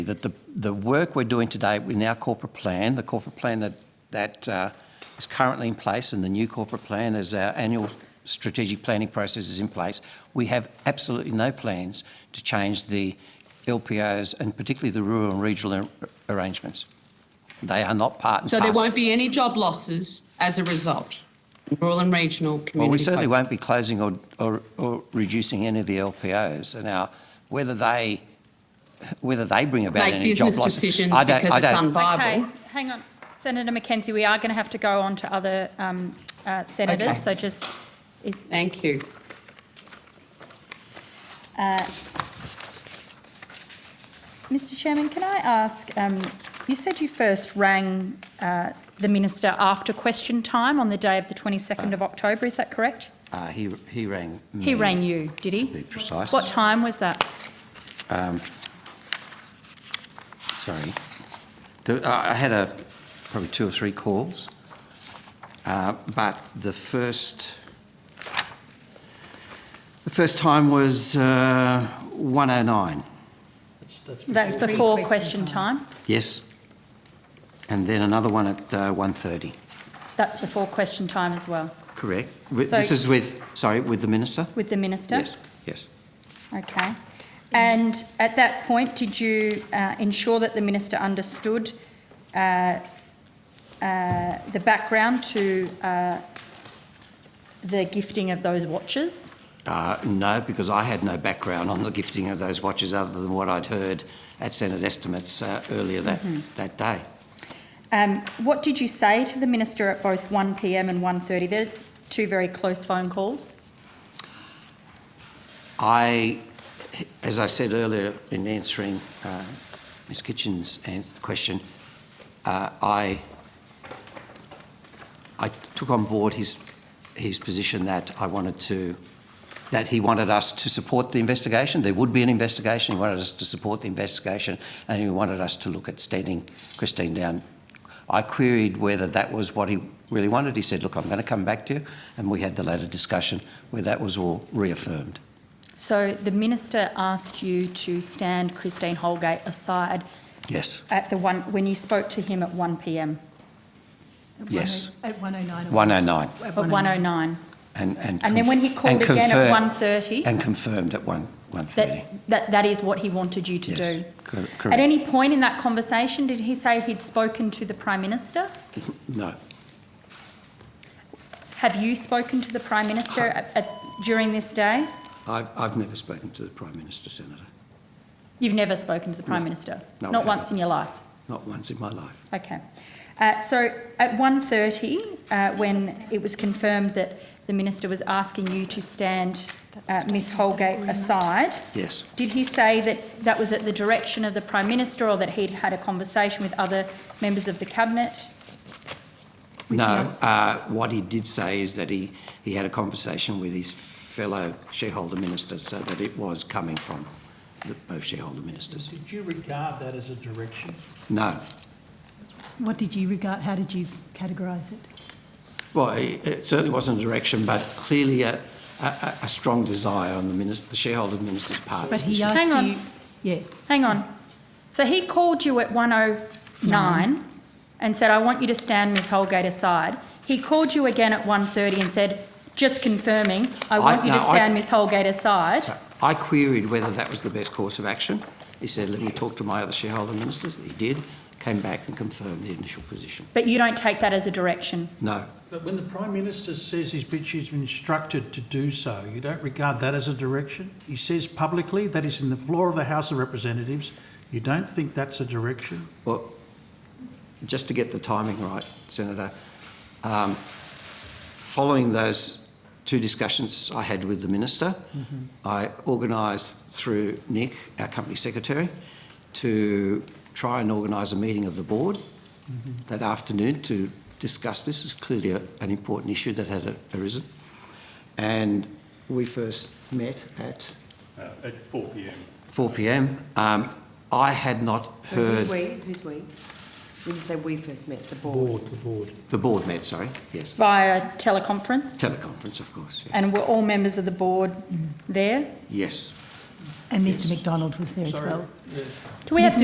that the, the work we're doing today in our corporate plan, the corporate plan that, that uh, is currently in place and the new corporate plan as our annual strategic planning process is in place, we have absolutely no plans to change the LPOs and particularly the rural and regional ar- arrangements. They are not part and So there parcel. won't be any job losses as a result, rural and regional community. Well, we certainly posts. won't be closing or, or, or reducing any of the LPOs. And now, whether they, whether they bring about Make any business job losses, decisions I don't, because I it's don't, unviable. Okay, hang on. Senator McKenzie, we are going to have to go on to other um, uh, Okay. senators, so just, is, Thank you. uh, Mr Chairman, can I ask, um, you said you first rang uh, the minister after question time on the day of the 22nd of October, is that correct? uh, he, he rang me. He rang you, did he? To be precise. What time was that? Sorry. The- uh, I I had a, probably two or three calls. Uh, But the first, the first time was uh, 109, That's before question time? yes? And then another one at uh, 1:30, That's before question time as well, correct? With- So- This is with, sorry, with the minister? with the minister? Yes, yes. Okay. And at that point, did you uh, ensure that the minister understood uh, uh, the background to uh, the gifting of those watches? Uh, No, because I had no background on the gifting of those watches other than what I'd heard at Senate estimates uh, earlier that, that day. Um, what did you say to the minister at both 1 p.m. and 1:30? They're two very close phone calls. I, as I said earlier in answering uh, Ms Kitchen's an- question, uh, I, I took on board his, his position that I wanted to, that he wanted us to support the investigation. There would be an investigation. He wanted us to support the investigation and he wanted us to look at standing Christine down. I queried whether that was what he really wanted. He said, look, I'm going to come back to you. And we had the later discussion where that was all reaffirmed. So the minister asked you to stand Christine Holgate aside Yes, at the one when you spoke to him at 1 p.m. Yes. At 109. at 109. at 109. 1:09. And, and, And then conf- when he called and again confirm- at 1:30? And confirmed at 1, 1.30. That, that, that is what he wanted you to Yes, do. cor- At correct. any point in that conversation, did he say he'd spoken to the Prime Minister? No, Have you spoken to the Prime Minister at, at, during this day? I've, I've never spoken to the Prime Minister, Senator. You've never spoken to the Prime Minister? No, I Not haven't. once in your life? Not once in my life. Okay. Uh, so at 1.30, uh, when it was confirmed that the Minister was asking you to stand uh, Ms Holgate aside, Yes. did he say that that was at the direction of the Prime Minister or that he'd had a conversation with other members of the Cabinet? No, uh, what he did say is that he, he had a conversation with his fellow shareholder ministers so that it was coming from the, both shareholder ministers. Did you regard that as a direction? No. What did you regard, how did you categorise it? Well, it it certainly wasn't a direction, but clearly a, a, a- a strong desire on the, minister, the shareholder minister's part. But he Hang asked on. you, yeah, Hang on. So he called you at 109 and said, I want you to stand Ms Holgate aside. He called you again at 1.30 and said, just confirming, I want you to no, I- stand Ms Holgate aside. I queried whether that was the best course of action. He said, let me talk to my other shareholder ministers. He did, came back and confirmed the initial position. But you don't take that as a direction. No, But when the Prime Minister says he's been, she's been instructed to do so, you don't regard that as a direction? He says publicly, that is in the floor of the House of Representatives, you don't think that's a direction? well, just to get the timing right, Senator, um, following those two discussions I had with the minister, Mm-hmm. I organised through Nick, our company secretary, to try and organise a meeting of the board Mm-hmm. that afternoon to discuss this. It's clearly a, an important issue that had a, arisen. And we first met at Uh, at 4 p.m. 4 p.m. Um, I had not So who's heard we? Who's we? When you say we first met, the board. Board, the board. the board met. Sorry, yes, Via teleconference? teleconference, of course. Yes, And were all members of the board there? yes. and Mr McDonald was there as Sorry. well. Do we have